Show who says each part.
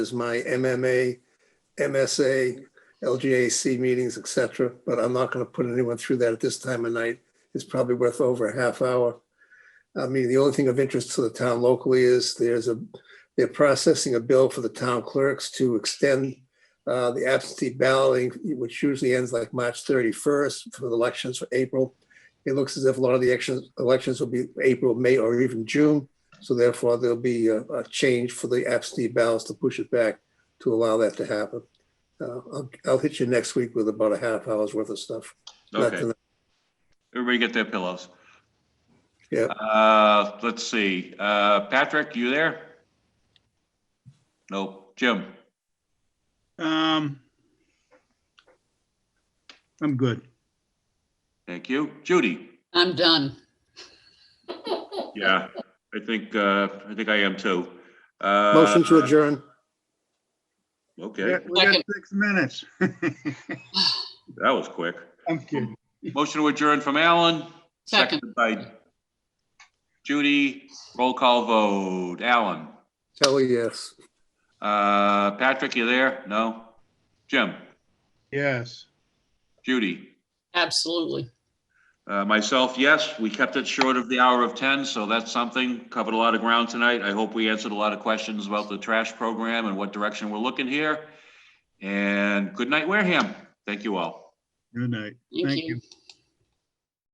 Speaker 1: is my MMA, MSA, LGAC meetings, et cetera, but I'm not going to put anyone through that at this time of night. It's probably worth over a half hour. I mean, the only thing of interest to the town locally is there's a, they're processing a bill for the town clerks to extend uh, the absentee balloting, which usually ends like March 31st for the elections for April. It looks as if a lot of the actions, elections will be April, May, or even June. So therefore, there'll be a, a change for the absentee ballots to push it back to allow that to happen. Uh, I'll, I'll hit you next week with about a half hour's worth of stuff. Not
Speaker 2: Okay,
Speaker 1: tonight.
Speaker 2: everybody get their pillows.
Speaker 1: Yeah.
Speaker 2: Uh, let's see, uh, Patrick, you there? Nope, Jim,
Speaker 3: Um, I'm good.
Speaker 2: thank you. Judy?
Speaker 4: I'm done.
Speaker 2: Yeah, I think, uh, I think I am too. Uh,
Speaker 1: Motion to adjourn.
Speaker 3: We
Speaker 2: Okay,
Speaker 3: got we got
Speaker 4: Second.
Speaker 3: six minutes.
Speaker 2: that was quick.
Speaker 3: I'm kidding.
Speaker 2: Motion to adjourn from Alan,
Speaker 4: Second,
Speaker 2: seconded by Judy, roll call vote. Alan?
Speaker 1: Kelly, yes.
Speaker 2: Uh, Patrick, you there? No? Jim?
Speaker 3: Yes.
Speaker 2: Judy?
Speaker 4: absolutely.
Speaker 2: Uh, Myself, yes, we kept it short of the hour of 10, so that's something. Covered a lot of ground tonight. I hope we answered a lot of questions about the trash program and what direction we're looking here. And good night, Wareham. Thank you all.
Speaker 3: Good night. Thank
Speaker 4: Thank you.
Speaker 3: you.